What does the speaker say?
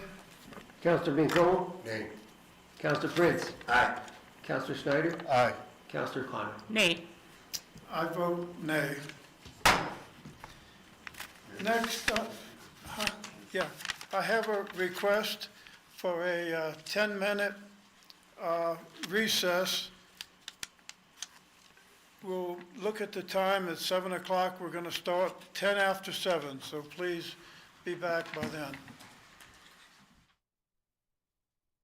Counselor Pincol, Nay. Counselor Prince, Aye. Counselor Schneider, Aye. Counselor Connor. Nay. I vote nay. Next, uh, huh, yeah, I have a request for a uh, 10-minute uh, recess. We'll look at the time, it's 7 o'clock, we're going to start 10 after 7, so please be back by then.